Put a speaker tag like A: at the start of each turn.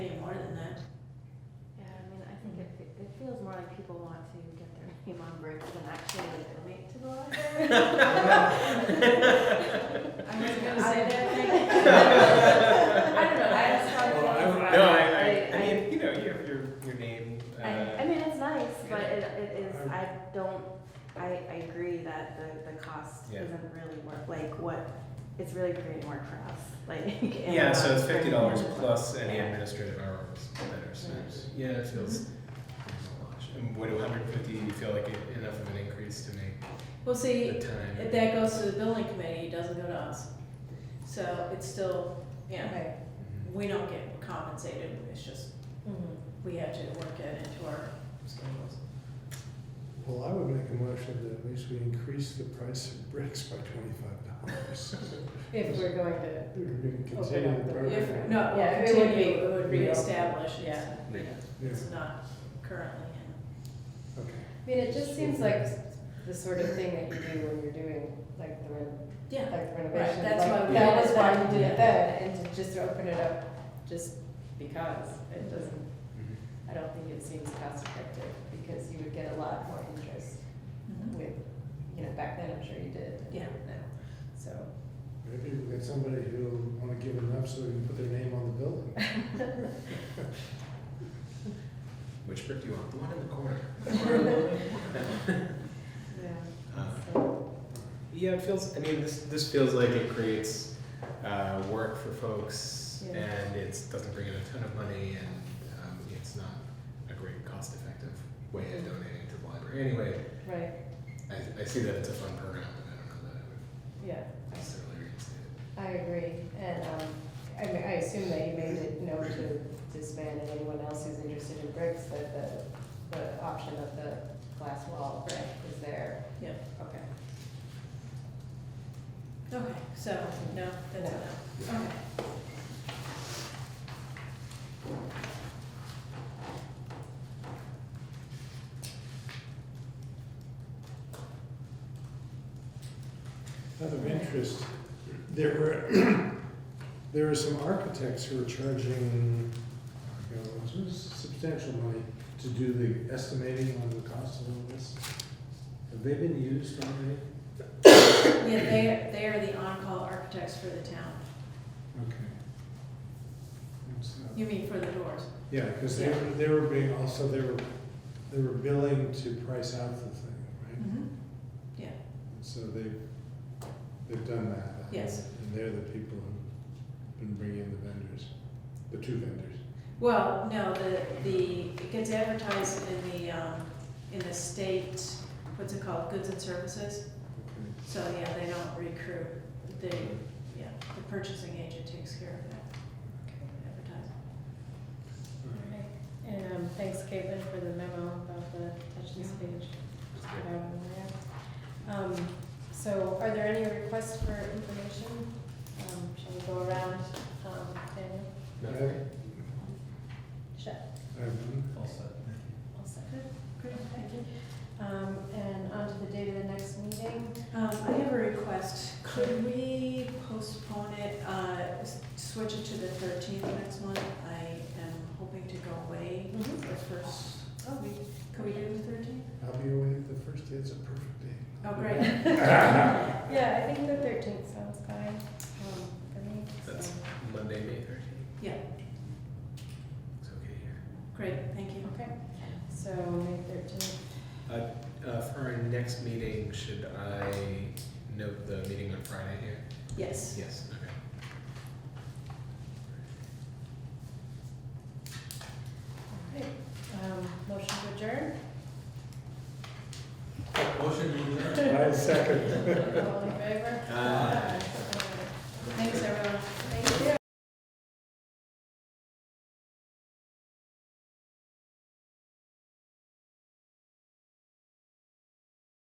A: came on breaks and actually like donate to the library. I was gonna say that thing. I don't know, I just thought.
B: Well, I would-
A: that-
B: No, I, I, I
A: I-
B: mean, you know, your, your, your name, uh,
A: I, I mean, it's nice, but it, it is, I don't, I, I agree that the, the cost
B: Yeah.
A: isn't really worth, like, what, it's really creating work for us, like. and,
B: yeah, so
A: uh,
B: it's fifty dollars
A: for-
B: plus any
A: Yeah.
B: administrative hours that are spent. Yeah, it feels. And would hundred fifty, you feel like it- enough of an increase to make
C: Well,
B: the
C: see, if
B: time?
C: that goes to the building committee, it doesn't go to us. So it's still, yeah,
D: Okay.
B: Mhm.
C: we don't get compensated, it's just,
A: Mm-hmm.
C: we have to work it into our schedules.
E: Well, I would make a motion that at least we increase the price of bricks by twenty-five dollars.
D: If we're going to,
E: We can
D: Open
E: continue
D: up
E: the
D: the-
C: If,
E: program.
C: no,
D: Yeah, it would
C: continue,
D: be-
C: it would reestablish, it's,
D: yeah.
B: Yeah.
E: Yeah,
C: it's not currently in.
E: okay.
D: I mean, it just seems like the sort of thing that you do when you're doing like the ren-
C: Yeah,
D: like renovation.
C: that's
D: like,
C: why we
D: That
C: did
D: was
C: it
D: why
C: then,
D: you did
C: yeah.
D: it then, and to just open it up, just because it doesn't,
B: Mhm.
D: I don't think it seems cost effective because you would get a lot more interest
C: Mhm.
D: with, you know, back then I'm sure you did. and
C: Yeah.
D: now. So,
E: Maybe we get somebody who wanna give it up so they can put their name on the building.
B: Which brick do you want? The one in the corner.
D: yeah,
B: Uh,
D: so,
B: Yeah, it feels. I mean, this this feels like it creates uh, work for folks,
D: Yeah.
B: and it doesn't bring in a ton of money, and um, it's not a great cost-effective way of donating to the library. Anyway,
D: right,
B: I, I see that it's a fun program, but I don't know that I would
D: yeah.
B: necessarily reinstate it.
D: I agree, and, um, I mean, I assume that you made it known to this man and anyone else who's interested in bricks, that the, the option of the glass wall brick is there.
C: Yeah.
D: Okay.
C: okay, so, no, that's
D: No.
C: enough, okay.
E: Out of interest, there were, there are some architects who are charging, you know, it was substantial money to do the estimating on the cost of all this. Have they been used already?
C: Yeah, they, they are the on-call architects for the town,
E: Okay. And so-
C: you mean for the doors?
E: Yeah, because they, were- they were being, also, they were, they were billing to price out the thing, right? And So they, they've done that.
C: Yes.
E: And they're the people who've been bringing in the vendors, the two vendors.
C: Well, no, the, the, it gets advertised in the, um, in the state, what's it called, goods and services?
E: Okay.
C: So, yeah, they don't recruit, they, yeah, the purchasing agent takes care of that advertising.
E: All right.
D: And, um, thanks Caitlin for the memo about the touch
C: this
D: page.
B: It's good.
D: Um, so are there any requests for information? Um, shall we go around, um, and
B: Nothing?
D: shut,
E: I have none.
B: All set.
D: all set?
C: Great, thank you.
D: Um, and on to the date of the next meeting.
C: Um, I have a request, could we postpone it, uh, s- switch it to the thirteenth next month? I am hoping to go away the first, oh, we, Mm-hmm. could we do the thirteenth?
E: I'll be away the first day, it's a perfect day.
C: Oh, great,
D: Yeah, I think the thirteenth sounds fine, um, for me, so.
B: That's- Monday, May thirteenth.
C: Yeah.
B: It's okay here.
C: great, thank you.
D: Okay, so May thirteenth,
B: Uh, for our next meeting, should I note the meeting on Friday here?
C: Yes.
B: Yes. Okay.
D: all right, um, motion to adjourn,
E: I second.
D: all in favor?
B: Aye.
D: Thanks, everyone.